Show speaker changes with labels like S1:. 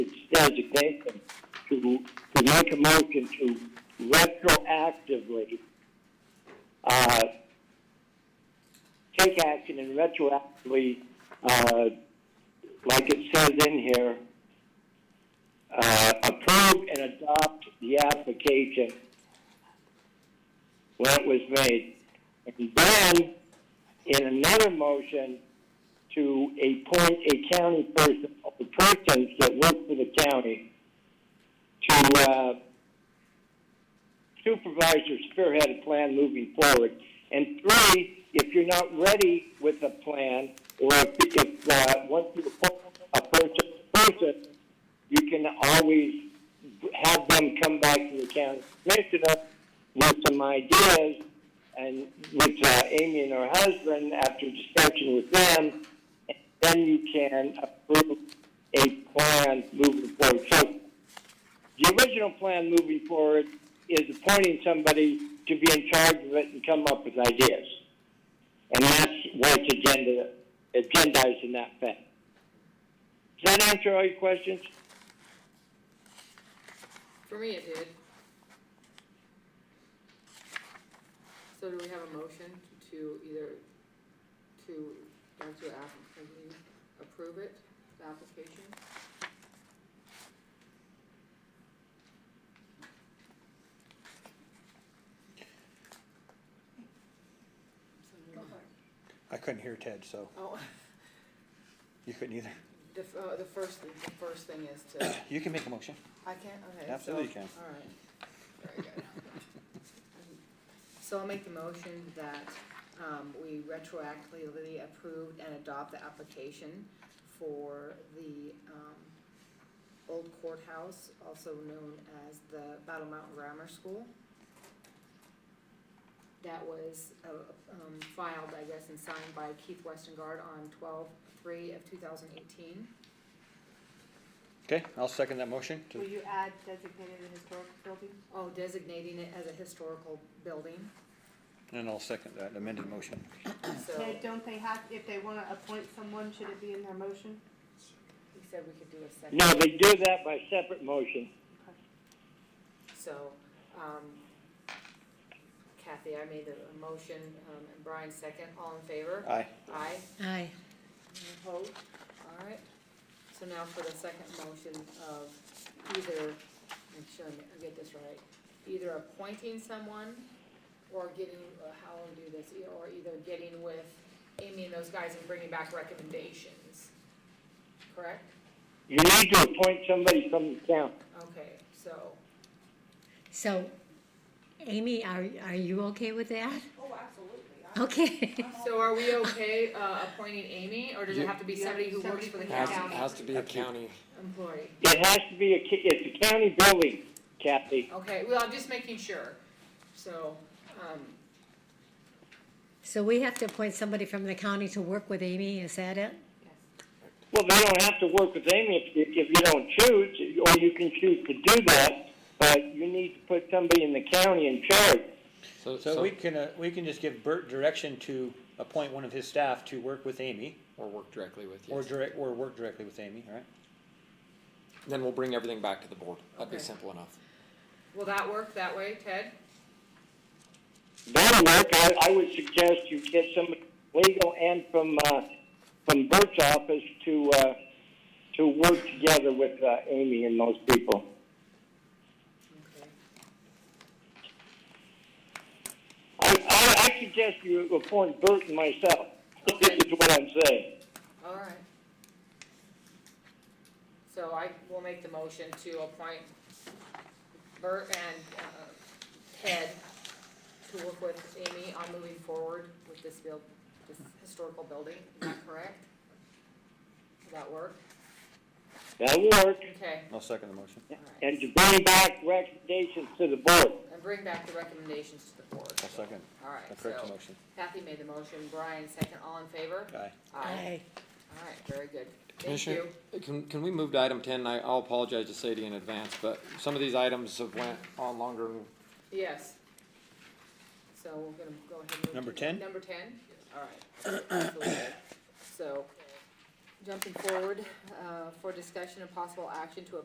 S1: resignation to, to make a motion to retroactively, uh, take action and retroactively, uh, like it says in here, uh, approve and adopt the application when it was made. And then, in another motion, to appoint a county person, the persons that work for the county, to uh, supervise or spearhead a plan moving forward. And three, if you're not ready with a plan, or if, if uh, once you appoint a person, person, you can always have them come back to the county commissioner with some ideas and with uh, Amy and her husband after discussion with them, and then you can approve a plan moving forward. So the original plan moving forward is appointing somebody to be in charge of it and come up with ideas. And that's where it's agenda, agendized in that fact. Does that answer all your questions?
S2: For me, it did. So do we have a motion to either, to, or to app- can we approve it, the application?
S3: I couldn't hear Ted, so
S2: Oh,
S3: you couldn't either.
S2: the, f- uh, the first, the first thing is to,
S3: You can make a motion.
S2: I can't, okay. so-
S3: Absolutely you can.
S2: All right, very good. So I'll make the motion that, um, we retroactively approve and adopt the application for the, um, old courthouse, also known as the Battle Mountain Grammar School. That was, uh, um, filed, I guess, and signed by Keith Westengard on twelve-three of two thousand eighteen.
S3: Okay, I'll second that motion. to-
S4: Will you add designated and historic building?
S2: Oh, designating it as a historical building,
S3: And I'll second that amended motion.
S2: so.
S4: Ted, don't they have, if they wanna appoint someone, should it be in their motion?
S2: He said we could do a second.
S1: No, they do that by separate motion.
S2: So, um, Kathy, I made the a motion, um, and Brian second, all in favor?
S3: Aye.
S2: Aye,
S5: Aye.
S2: Any opposed? All right. So now for the second motion of either, make sure I get this right, either appointing someone or getting, or how we do this, e, or either getting with Amy and those guys and bringing back recommendations. Correct?
S1: You need to appoint somebody from the town.
S2: Okay, so.
S5: So, Amy, are, are you okay with that?
S4: Oh, absolutely.
S5: Okay.
S2: So are we okay, uh, appointing Amy, or does it have to be somebody who works for the
S4: Yeah.
S6: Has,
S2: county
S6: has to be a county.
S2: employee?
S1: It has to be a, ca- it's a county building, Kathy.
S2: Okay, well, I'm just making sure, so, um,
S5: So we have to appoint somebody from the county to work with Amy, is that it?
S1: Well, they don't have to work with Amy if, if you don't choose, or you can choose to do that, but you need to put somebody in the county in charge.
S6: So,
S3: So we can, uh, we can just give Bert direction to appoint one of his staff to work with Amy
S6: or work directly with you.
S3: or direct, or work directly with Amy, all right?
S6: then we'll bring everything back to the board. That'd
S2: Okay.
S6: be simple enough.
S2: will that work that way, Ted?
S1: That'll work. I, I would suggest you get somebody legal and from, uh, from Bert's office to, uh, to work together with, uh, Amy and those people.
S2: Okay.
S1: I, I, I suggest you appoint Bert and myself,
S2: Okay.
S1: is what I'm saying.
S2: All right. So I will make the motion to appoint Bert and, uh, Ted to work with Amy on moving forward with this build, this historical building, is that correct? Does that work?
S1: That'll work.
S2: Okay,
S3: I'll second the motion.
S2: all right.
S1: And to bring back recommendations to the board.
S2: And bring back the recommendations to the board.
S3: I'll second
S2: All
S3: the
S2: right,
S3: correct
S2: so
S3: motion.
S2: Kathy made the motion, Brian second, all in favor?
S3: Aye.
S2: All right, very good. Thank
S6: Commissioner, Uh,
S2: you.
S6: Can, can we move to item ten? I, I'll apologize to Sadie in advance, but some of these items have went on longer. than-
S2: Yes. So we're gonna go ahead and. move
S3: Number
S2: to-
S3: 10?
S2: Number ten, all right. Absolutely. So, jumping forward, uh, for discussion of possible action to